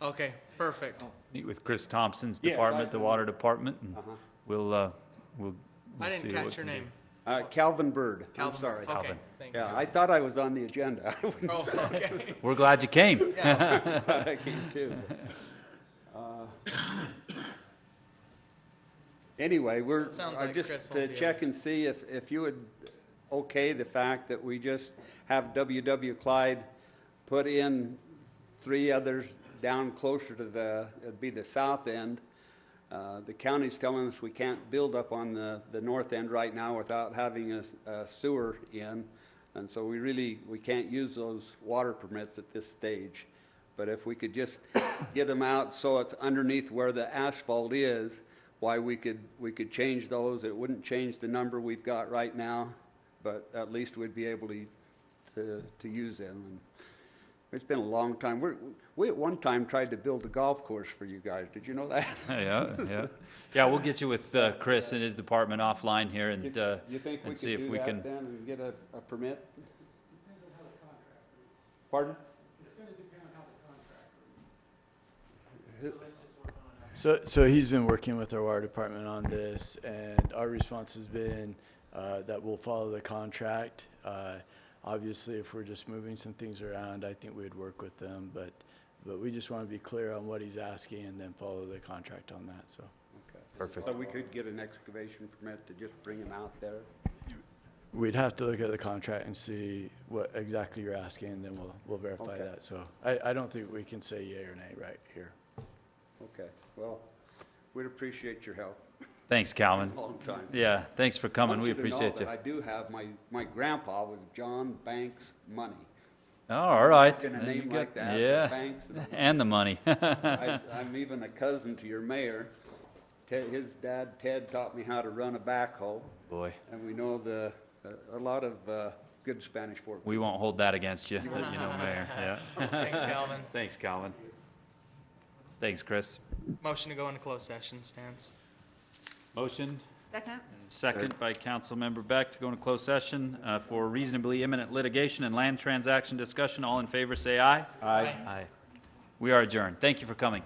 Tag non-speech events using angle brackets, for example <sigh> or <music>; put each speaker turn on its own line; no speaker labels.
Okay, perfect.
Meet with Chris Thompson's
Yes, I-
department, the water department, and
Uh-huh.
we'll, uh, we'll. we'll
I
see
didn't
what
catch your
we can do.
name.
Uh, Calvin Bird, I'm
Calvin.
sorry.
Okay,
Calvin.
thanks.
Yeah, I thought I was on the agenda. <laughs> I wouldn't
Oh, okay. <laughs>
We're glad you came. <laughs>
Yeah.
<laughs> thought I came too. Uh, Anyway, we're,
sounds
I
like Chris
just
will
to
be
check and see if, if you would okay the fact that we just have WW Clyde put in three others down closer to the, it'd be the south end. Uh, The county's telling us we can't build up on the, the north end right now without having a s- a sewer in. And so we really, we can't use those water permits at this stage. But if we could just get them out so it's underneath where the asphalt is, why we could, we could change those. It wouldn't change the number we've got right now, but at least we'd be able to, to, to use them. And It's been a long time. We're, we at one time tried to build a golf course for you guys. Did you know that?
Yeah, yeah. Yeah, we'll get you with, uh, Chris and his department offline here and, uh,
<laughs> You think we
and see
could
if
do
we
that
can.
then and get a, a permit? Pardon?
So, so he's been working with our water department on this, and our response has been uh, that we'll follow the contract. Uh, Obviously, if we're just moving some things around, I think we'd work with them, but, but we just want to be clear on what he's asking and then follow the contract on that, so.
Perfect. So we could get an excavation permit to just bring them out there?
We'd have to look at the contract and see what exactly you're asking, and then we'll, we'll verify
Okay.
that. So I, I don't think we can say yea or nay right here.
Okay, well, we'd appreciate your help. <laughs>
Thanks, Calvin.
Long time.
Yeah, thanks for coming.
Want
We
you to know
appreciate
that
you.
I do have, my, my grandpa was John Banks
<laughs>
Money.
Oh, all right.
In a
There you
name
go.
like that, the
Yeah,
Banks. and-
and the money. <laughs>
I- I'm even a cousin to your mayor. Ted, his dad, Ted, taught me how to run a backhoe,
Boy,
and we know the, a- a lot of uh, good Spanish Fork
we won't hold that against you, that you know,
<laughs>
Mayor. Yeah.
Thanks, Calvin.
Thanks, Calvin. Thanks, Chris.
Motion to go into closed session stands.
Motion?
Second?
Second by Councilmember Beck to go into closed session uh, for reasonably imminent litigation and land transaction discussion. All in favor, say aye.
Aye.
Aye. We are adjourned. Thank you for coming.